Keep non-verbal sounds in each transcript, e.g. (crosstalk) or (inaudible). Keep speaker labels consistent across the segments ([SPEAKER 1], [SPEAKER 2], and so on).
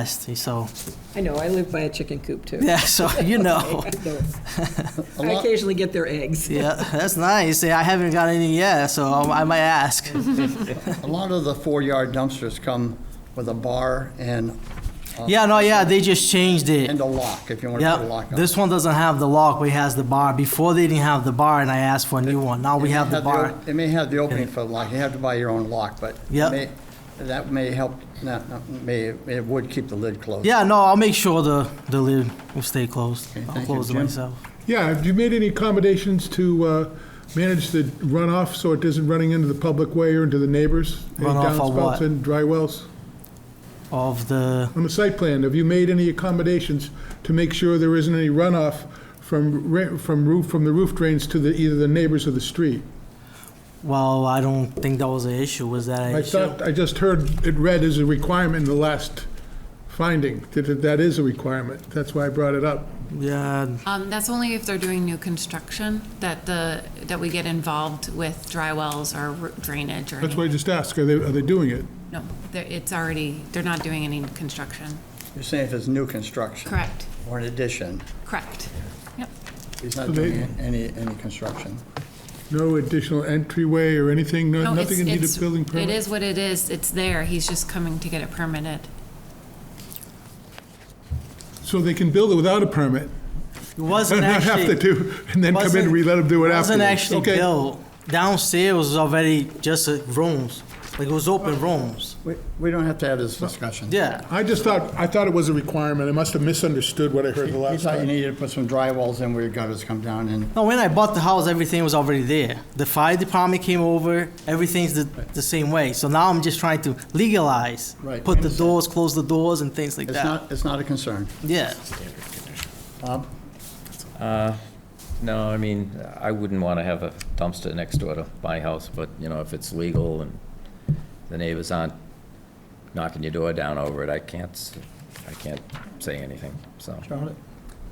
[SPEAKER 1] nasty, so, (laughs)
[SPEAKER 2] I know, I live by a chicken coop too.
[SPEAKER 1] yeah, so, you
[SPEAKER 2] (laughs)
[SPEAKER 1] know.
[SPEAKER 3] A
[SPEAKER 2] I
[SPEAKER 3] lot,
[SPEAKER 2] occasionally get their eggs.
[SPEAKER 1] Yeah, that's nice. Yeah, I haven't got any yet, so I I might ask.
[SPEAKER 3] a lot of the four-yard dumpsters come with a bar and, uh,
[SPEAKER 1] Yeah, no, yeah, they just changed it.
[SPEAKER 3] and a lock, if you want to put a
[SPEAKER 1] Yeah,
[SPEAKER 3] lock on.
[SPEAKER 1] this one doesn't have the lock, we has the bar. Before they didn't have the bar, and I asked for a new one. Now we
[SPEAKER 3] It may
[SPEAKER 1] have the bar.
[SPEAKER 3] op- It may have the opening for the lock, you have to buy your own lock, but it
[SPEAKER 1] Yep.
[SPEAKER 3] may- that may help, not, not- may, it would keep the lid closed.
[SPEAKER 1] Yeah, no, I'll make sure the, the lid will stay closed.
[SPEAKER 3] Okay,
[SPEAKER 1] I'll
[SPEAKER 3] thank you,
[SPEAKER 1] close it
[SPEAKER 3] Jim.
[SPEAKER 1] myself.
[SPEAKER 4] Yeah, have you made any accommodations to uh, manage the runoff so it isn't running into the public way or into the neighbors? Any
[SPEAKER 1] Runoff of what?
[SPEAKER 4] Downspouts and dry wells?
[SPEAKER 1] Of the,
[SPEAKER 4] On the site plan, have you made any accommodations to make sure there isn't any runoff from, ra- from roof, from the roof drains to the, either the neighbors or the street?
[SPEAKER 1] well, I don't think that was an issue, was that an
[SPEAKER 4] I
[SPEAKER 1] issue?
[SPEAKER 4] thought, I just heard it read as a requirement in the last finding, that that that is a requirement. That's why I brought it up.
[SPEAKER 1] Yeah,
[SPEAKER 5] Um, that's only if they're doing new construction, that the, that we get involved with dry wells or r- drainage or
[SPEAKER 4] That's why I
[SPEAKER 5] anything.
[SPEAKER 4] just asked, are they, are they doing it?
[SPEAKER 5] No, they're- it's already, they're not doing any construction.
[SPEAKER 3] You're saying if it's new construction.
[SPEAKER 5] Correct,
[SPEAKER 3] Or an addition,
[SPEAKER 5] correct. Yep,
[SPEAKER 3] he's not
[SPEAKER 4] So they-
[SPEAKER 3] doing any, any construction.
[SPEAKER 4] No additional entryway or anything,
[SPEAKER 5] No,
[SPEAKER 4] no-
[SPEAKER 5] it's-
[SPEAKER 4] nothing in need
[SPEAKER 5] it's-
[SPEAKER 4] of building permit?
[SPEAKER 5] It is what it is, it's there, he's just coming to get it permitted.
[SPEAKER 4] So they can build it without a permit?
[SPEAKER 1] it wasn't
[SPEAKER 3] (laughs)
[SPEAKER 4] And not have to
[SPEAKER 1] actually,
[SPEAKER 4] do, and then come in and we let them do it
[SPEAKER 1] it wasn't
[SPEAKER 4] afterwards?
[SPEAKER 1] actually
[SPEAKER 4] Okay.
[SPEAKER 1] built. Downstairs was already just uh, rooms, like it was open rooms.
[SPEAKER 3] We, we don't have to have this discussion.
[SPEAKER 1] Yeah,
[SPEAKER 4] I just thought, I thought it was a requirement. I must have misunderstood what I heard the
[SPEAKER 3] You
[SPEAKER 4] last
[SPEAKER 3] thought you
[SPEAKER 4] time.
[SPEAKER 3] needed to put some dry walls in where your gutters come down and,
[SPEAKER 1] no, when I bought the house, everything was already there. The fire department came over, everything's the, the same way. So now I'm just trying to legalize.
[SPEAKER 3] Right,
[SPEAKER 1] Put the
[SPEAKER 3] understand.
[SPEAKER 1] doors, close the doors and things like
[SPEAKER 3] it's
[SPEAKER 1] that.
[SPEAKER 3] not, it's not a concern.
[SPEAKER 1] Yeah,
[SPEAKER 3] Bob?
[SPEAKER 6] No, I mean, I wouldn't want to have a dumpster next door to my house, but, you know, if it's legal and the neighbors aren't knocking your door down over it, I can't, s- I can't say anything, so.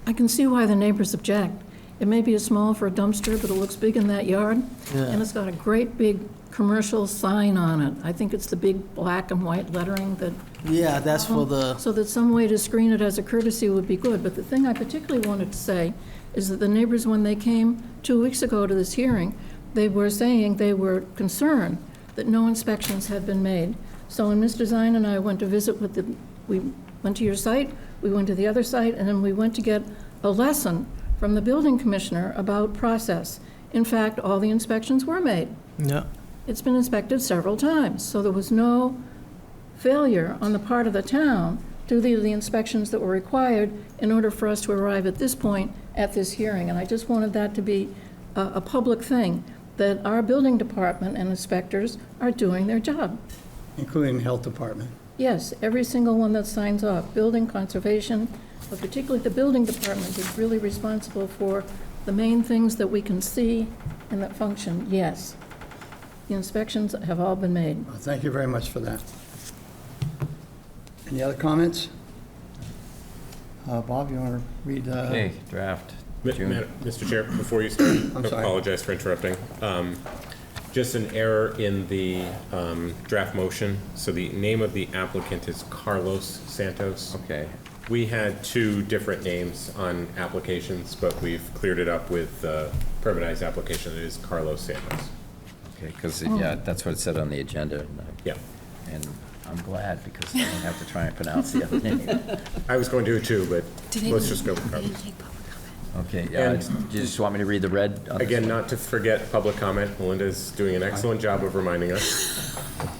[SPEAKER 7] I can see why the neighbors object. It may be small for a dumpster, but it looks big in that yard. And it's got a great big commercial sign on it. I think it's the big black and white lettering that.
[SPEAKER 1] yeah, that's for the,
[SPEAKER 7] Uh-huh. So that some way to screen it as a courtesy would be good. But the thing I particularly wanted to say is that the neighbors, when they came two weeks ago to this hearing, they were saying they were concerned that no inspections had been made. So when Mr. Zine and I went to visit with the, we went to your site, we went to the other site, and then we went to get a lesson from the building commissioner about process. In fact, all the inspections were made.
[SPEAKER 1] yeah.
[SPEAKER 7] It's been inspected several times, so there was no failure on the part of the town to do the inspections that were required in order for us to arrive at this point at this hearing. And I just wanted that to be a, a public thing, that our building department and inspectors are doing their job.
[SPEAKER 3] Including the health department.
[SPEAKER 7] Yes, every single one that signs off, building, conservation, but particularly the building department is really responsible for the main things that we can see and that function, yes. The inspections have all been made.
[SPEAKER 3] Well, Thank you very much for that. Any other comments? Uh, Bob, you want to read? uh,
[SPEAKER 6] Okay, draft,
[SPEAKER 8] Ma-
[SPEAKER 6] June.
[SPEAKER 8] Madam- Mr. Chair, before you start, I
[SPEAKER 3] sorry.
[SPEAKER 8] apologize for interrupting. Um, Just an error in the um, draft motion. So the name of the applicant is Carlos Santos.
[SPEAKER 6] Okay,
[SPEAKER 8] We had two different names on applications, but we've cleared it up with the permanized application. It is Carlos Santos.
[SPEAKER 6] okay, because, yeah, that's what it said on the agenda. and I-
[SPEAKER 8] Yeah,
[SPEAKER 6] And I'm glad, because I don't have to try and pronounce the other (laughs) name.
[SPEAKER 8] I was going to too, but
[SPEAKER 5] Did they-
[SPEAKER 8] let's just go with Carlos.
[SPEAKER 5] Did they take public comment?
[SPEAKER 6] Okay, yeah,
[SPEAKER 8] And-
[SPEAKER 6] do you just want me to read the red? on this
[SPEAKER 8] Again,
[SPEAKER 6] one?
[SPEAKER 8] not to forget public comment. Melinda's doing an excellent job of reminding us.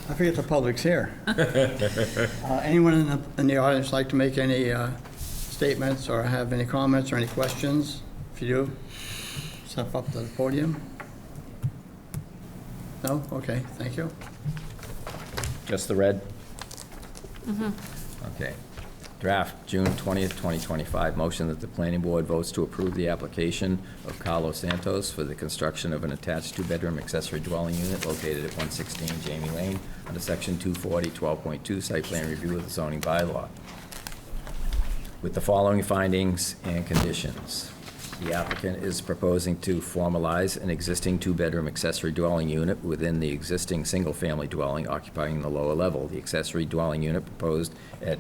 [SPEAKER 3] I forget the public's here. Uh, Anyone in the, in the audience like to make any uh, statements or have any comments or any questions? If you do, step up to the podium. No? Okay, thank you.
[SPEAKER 6] Just the red? Okay. Draft, June 20th, 2025, motion that the planning board votes to approve the application of Carlos Santos for the construction of an attached two-bedroom accessory dwelling unit located at 116 Jamie Lane under section 240, 12.2, site plan review of the zoning bylaw with the following findings and conditions. The applicant is proposing to formalize an existing two-bedroom accessory dwelling unit within the existing single-family dwelling occupying the lower level. The accessory dwelling unit proposed at